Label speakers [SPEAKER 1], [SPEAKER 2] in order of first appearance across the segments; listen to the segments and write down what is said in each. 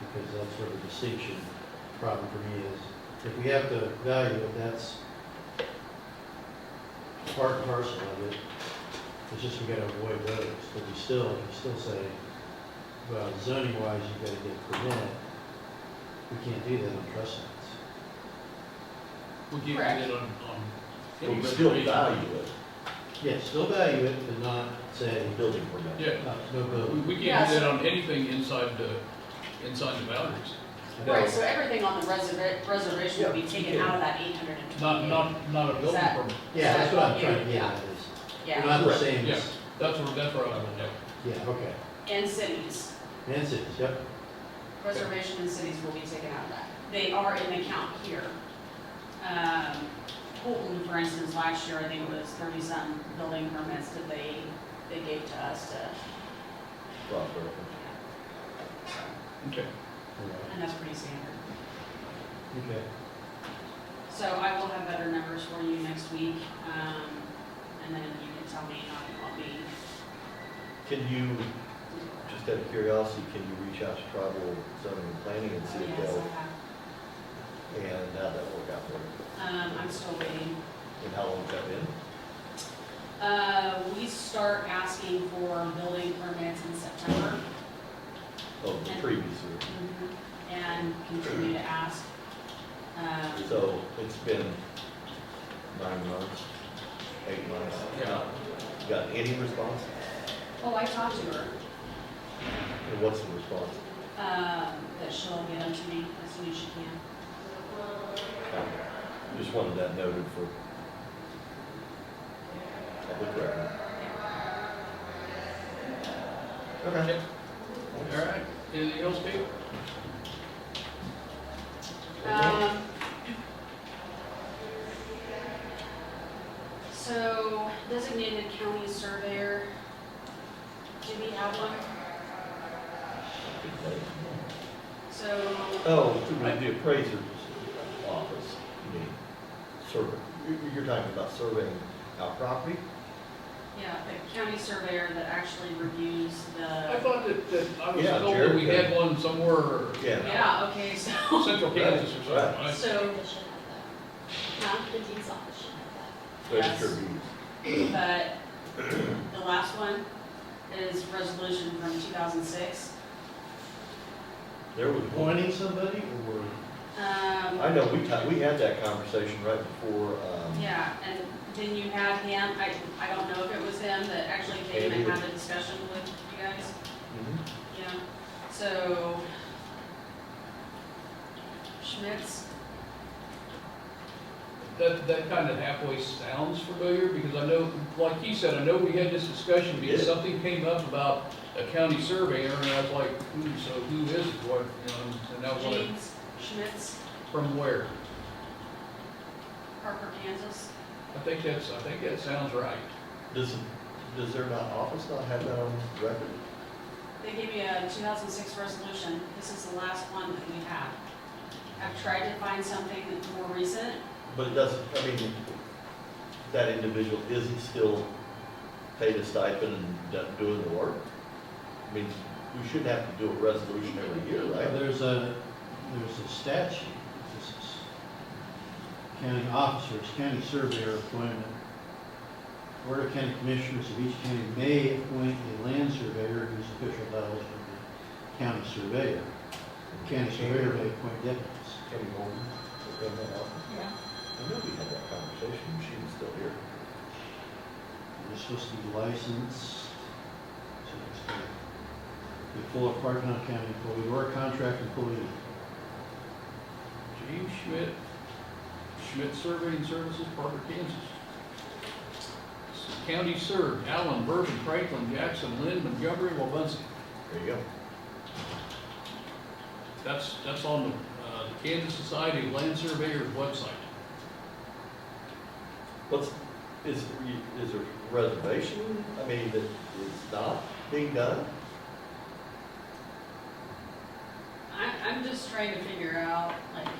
[SPEAKER 1] because that's where the distinction problem for me is. If we have to value it, that's part and parcel of it. It's just we gotta avoid those, but you still, you still say, well, zoning wise, you gotta get permit. We can't do that on trust lands.
[SPEAKER 2] We can't do
[SPEAKER 3] Correct.
[SPEAKER 2] that on, on.
[SPEAKER 4] But we still value it,
[SPEAKER 1] Yeah, still value it, but not say,
[SPEAKER 4] the building permit.
[SPEAKER 2] Yeah,
[SPEAKER 1] uh, no
[SPEAKER 2] we,
[SPEAKER 1] building.
[SPEAKER 2] we can't
[SPEAKER 3] Yes.
[SPEAKER 2] do that on anything inside the, inside the boundaries.
[SPEAKER 3] Right, so everything on the reserva- reservation would be
[SPEAKER 4] Yeah,
[SPEAKER 3] taken
[SPEAKER 4] yeah.
[SPEAKER 3] out of that eight hundred and
[SPEAKER 2] Not,
[SPEAKER 3] twenty-eight.
[SPEAKER 2] not, not a building
[SPEAKER 3] that-
[SPEAKER 2] permit.
[SPEAKER 1] Yeah, that's what I'm trying to get at is, we're
[SPEAKER 3] Yeah,
[SPEAKER 1] not
[SPEAKER 4] Correct.
[SPEAKER 1] saying,
[SPEAKER 2] Yeah,
[SPEAKER 1] it's-
[SPEAKER 2] that's where, that's where I was at.
[SPEAKER 1] yeah, okay.
[SPEAKER 3] and cities,
[SPEAKER 1] And cities, yep.
[SPEAKER 3] reservation and cities will be taken out of that. They are in the count here. Um, Holton, for instance, last year, I think it was thirty-some building permits that they, they gave to us to,
[SPEAKER 4] Proper.
[SPEAKER 2] Okay.
[SPEAKER 1] All right,
[SPEAKER 3] and that's pretty standard.
[SPEAKER 1] Okay.
[SPEAKER 3] So I will have better numbers for you next week, um, and then you can tell me, I'll, I'll be
[SPEAKER 4] Can you, just out of curiosity, can you reach out to tribal zoning and planning and see
[SPEAKER 3] Oh,
[SPEAKER 4] if
[SPEAKER 3] yes,
[SPEAKER 4] they'll,
[SPEAKER 3] I have.
[SPEAKER 4] and how that work out for them?
[SPEAKER 3] Um, I'm still waiting.
[SPEAKER 4] And how long that been?
[SPEAKER 3] Uh, we start asking for building permits in September
[SPEAKER 4] Oh, the previous year.
[SPEAKER 3] and continue to ask. Um,
[SPEAKER 4] So it's been nine months, eight months.
[SPEAKER 2] Yeah.
[SPEAKER 4] Got any response?
[SPEAKER 3] oh, I talked to her,
[SPEAKER 4] And what's the response?
[SPEAKER 3] um, that she'll get them to me as soon as she can.
[SPEAKER 4] Just wanted that noted for public record. Okay.
[SPEAKER 2] All right, anything else, Kate?
[SPEAKER 3] Um, so designated county surveyor, do we have one? So
[SPEAKER 4] Oh, to the- the appraiser's office, you mean, survey, you- you're talking about surveying our property?
[SPEAKER 3] Yeah, the county surveyor that actually reviews
[SPEAKER 2] I
[SPEAKER 3] the,
[SPEAKER 2] thought that, that I was
[SPEAKER 4] Yeah,
[SPEAKER 2] told that we
[SPEAKER 4] Jared.
[SPEAKER 2] had one somewhere,
[SPEAKER 4] Yeah.
[SPEAKER 3] yeah, okay, so,
[SPEAKER 2] central Kansas or something,
[SPEAKER 4] Right.
[SPEAKER 2] right?
[SPEAKER 3] so,
[SPEAKER 5] They should have that.
[SPEAKER 3] huh?
[SPEAKER 5] The dean's office should have that.
[SPEAKER 3] Yes.
[SPEAKER 4] Register of deeds.
[SPEAKER 3] but the last one is resolution from two thousand six.
[SPEAKER 4] There was one,
[SPEAKER 1] Appointing somebody or?
[SPEAKER 3] Um,
[SPEAKER 4] I know, we, ta- we had that conversation right before, um,
[SPEAKER 3] yeah, and then you had him, I, I don't know if it was him that actually came and had a discussion with you guys,
[SPEAKER 4] mhm.
[SPEAKER 3] yeah, so. Schmitz,
[SPEAKER 2] That, that kind of halfway sounds familiar, because I know, like he said, I know we had this discussion, because
[SPEAKER 4] Yeah.
[SPEAKER 2] something came up about a county surveyor, and I was like, hmm, so who is it, what, you know, and that was
[SPEAKER 3] James Schmitz,
[SPEAKER 2] from where?
[SPEAKER 3] Harper, Kansas.
[SPEAKER 2] I think that's, I think that sounds right.
[SPEAKER 4] does, does their not, office not have that on record?
[SPEAKER 3] They gave me a 2006 resolution. This is the last one that we have. I've tried to find something that's more recent.
[SPEAKER 4] But it doesn't, I mean, that individual isn't still paid a stipend and done doing the work? I mean, we shouldn't have to do a resolution every year, right?
[SPEAKER 1] There's a, there's a statute, this is county officers, county surveyor appointment. Board of County Commissioners of each county may appoint a land surveyor whose official title is the county surveyor. County surveyor may appoint deputies.
[SPEAKER 4] Kenny Morton, was in that office.
[SPEAKER 3] Yeah.
[SPEAKER 4] I know we had that conversation, and she was still here.
[SPEAKER 1] They're supposed to be licensed. so it's gonna Be full of part-time county employee or a contract employee.
[SPEAKER 2] James Schmidt, Schmidt Surveying Services, Parker, Kansas. County served, Allen, Bourbon, Franklin, Jackson, Lynn, Montgomery, Wabunsee.
[SPEAKER 4] There you go.
[SPEAKER 2] That's, that's on the uh, the Kansas Society of Land Surveyors website.
[SPEAKER 4] What's, is, is there reservation, I mean, that is not being done?
[SPEAKER 3] I, I'm just trying to figure out like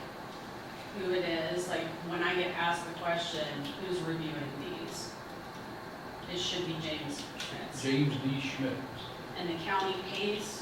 [SPEAKER 3] who it is, like when I get asked the question, who's reviewing these? It should be James Schmitz.
[SPEAKER 2] James D. Schmidt.
[SPEAKER 3] And the county pays